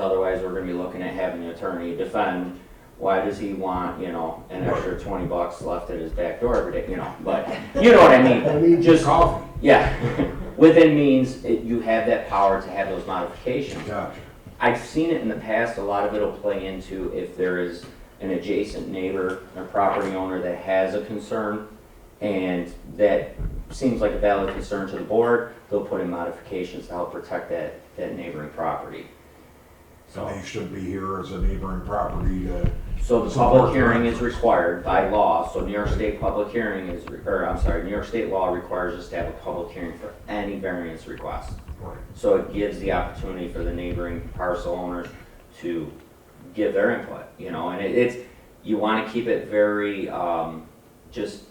Otherwise, we're gonna be looking at having the attorney defend, why does he want, you know, an extra twenty bucks left at his back door every day, you know, but, you know what I I mean? need your Just, coffee. yeah, within means, it- you have that power to have those modifications. Gotcha. I've seen it in the past, a lot of it'll play into if there is an adjacent neighbor or property owner that has a concern, and that seems like a valid concern to the board, they'll put in modifications to help protect that, that neighboring property. So. And they should be here as a neighboring property to, So the public hearing is required by law, so New York State public hearing is, or I'm sorry, New York State law requires us to have a public hearing for any variance request. right, So it gives the opportunity for the neighboring parcel owners to give their input, you know, and it, it's, you wanna keep it very, um, just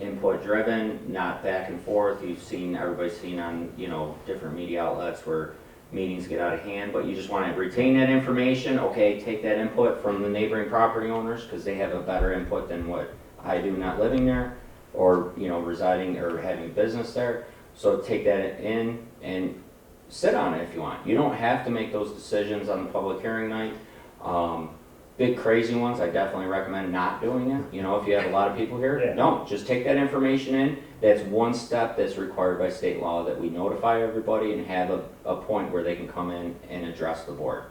input driven, not back and forth. You've seen, everybody's seen on, you know, different media outlets where meetings get out of hand, but you just wanna retain that information, okay, take that input from the neighboring property owners, cause they have a better input than what I do not living there, or, you know, residing or having business there. So take that in and sit on it if you want. You don't have to make those decisions on the public hearing night. Um, big crazy ones, I definitely recommend not doing it. You know, if you have a lot of people here, Yeah. don't. Just take that information in. That's one step that's required by state law that we notify everybody and have a, a point where they can come in and address the board.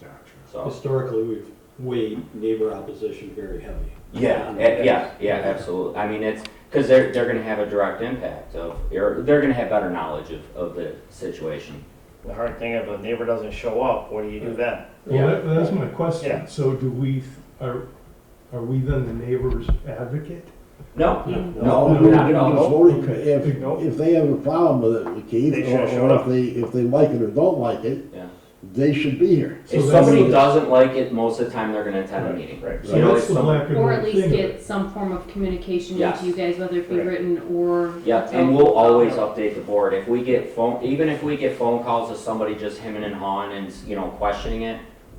gotcha. So, Historically, we've weighed neighbor opposition very heavy. yeah, eh, yeah, yeah, absolutely. I mean, it's, because they're, they're going to have a direct impact of, or they're going to have better knowledge of, of the situation. The hard thing, if a neighbor doesn't show up, what do you do then? Well, that, that's my question. Yeah. So do we, are, are we then the neighbor's advocate? No, No, Oh, No, we not at can all. vote Okay. if, if they have a problem with it, Keith, They or should've showed or if up. they, if they like it or don't like it, Yeah. they should be here. So If that's- somebody doesn't like it, most of the time they're gonna attend a meeting. Right. So You know, that's if the some- black and Or at white least thing. get some form of communication Yes. to you guys, whether it be Right. written or. Yep, and we'll always update the board. If we get phone, even if we get phone calls of somebody just hemming and hawing and, you know, questioning it,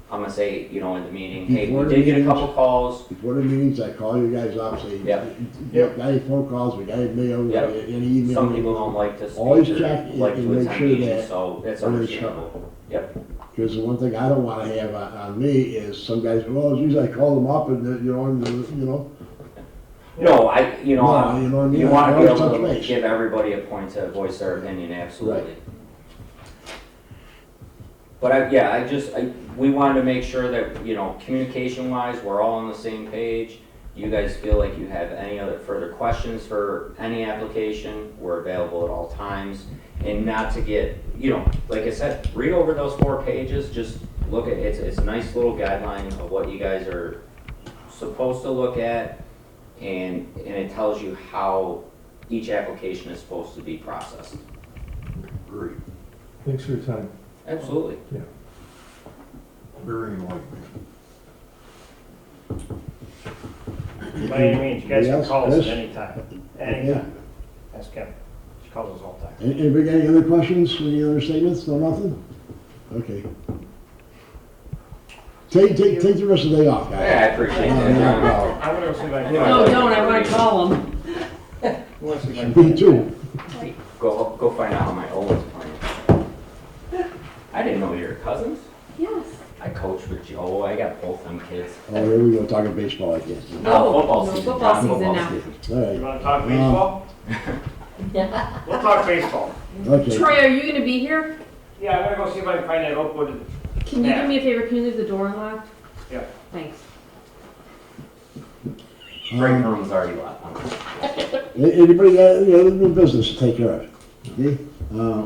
I'm gonna say, you know, in the meeting, hey, Before we the did get a meetings. couple calls. Before the meetings, I call you guys up, say, Yep. "Yep, got any phone calls, we got any mail, we got Yep. any email. Some people don't like to Always speak check or and- like and to make attend sure meetings, that so that's when they understandable. Yep, Because the one thing I don't wanna have on, on me is some guys, well, geez, I called them up and, uh, you know, and, uh, you know, no, I, you know, No, you know what I I'm- mean? you wanna be Always able touch to base. give everybody a point to voice their opinion, absolutely. But I, yeah, I just, I, we wanted to make sure that, you know, communication wise, we're all on the same page. You guys feel like you have any other further questions for any application, we're available at all times. And not to get, you know, like I said, read over those four pages, just look at, it's, it's a nice little guideline of what you guys are supposed to look at. And, and it tells you how each application is supposed to be processed. Great, Thanks for your time. Absolutely. very enlightening. By any means, you guys can Yes, call us at yes. any time, Yeah. anytime. Ask Kim, she calls us all the time. Any- Anybody got any other questions, any other statements, no nothing? Okay. Take, take, take the rest of the day off, Yeah, I guys. appreciate No, no that. problem. I'm gonna see if I can. No, No, don't, I wanna call them. I'm gonna see if I can- Me too. Go, go find out how my Owen's playing. I didn't know you were cousins. Yes. I coach with Joe. I got both them kids. Oh, here we go, talking baseball again. No, football no, season, Football not season football now. season. All You right, wanna talk baseball? We'll talk baseball. okay. Troy, are you gonna be here? Yeah, I'm gonna go see if I can find that Oakwood. Can you Yeah. do me a favor, can you leave the door unlocked? Yeah. Thanks. Break room's already left. A- Anybody got any other new business to take care of? Okay, uh,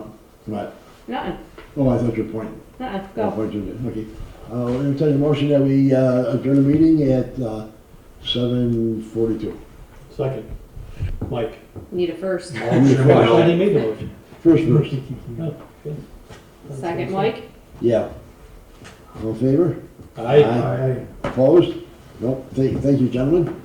what, Nuh-uh, oh, I thought your point. nuh-uh, Oh, go. point you did. Okay, uh, we'll entertain a motion that we, uh, adjourn the meeting at, uh, seven forty-two. Second, Mike. Need a first. I didn't make the motion. First verse, Second, Mike? yeah. All in favor? Aye. Aye. Opposed? Nope, thank, thank you, gentlemen.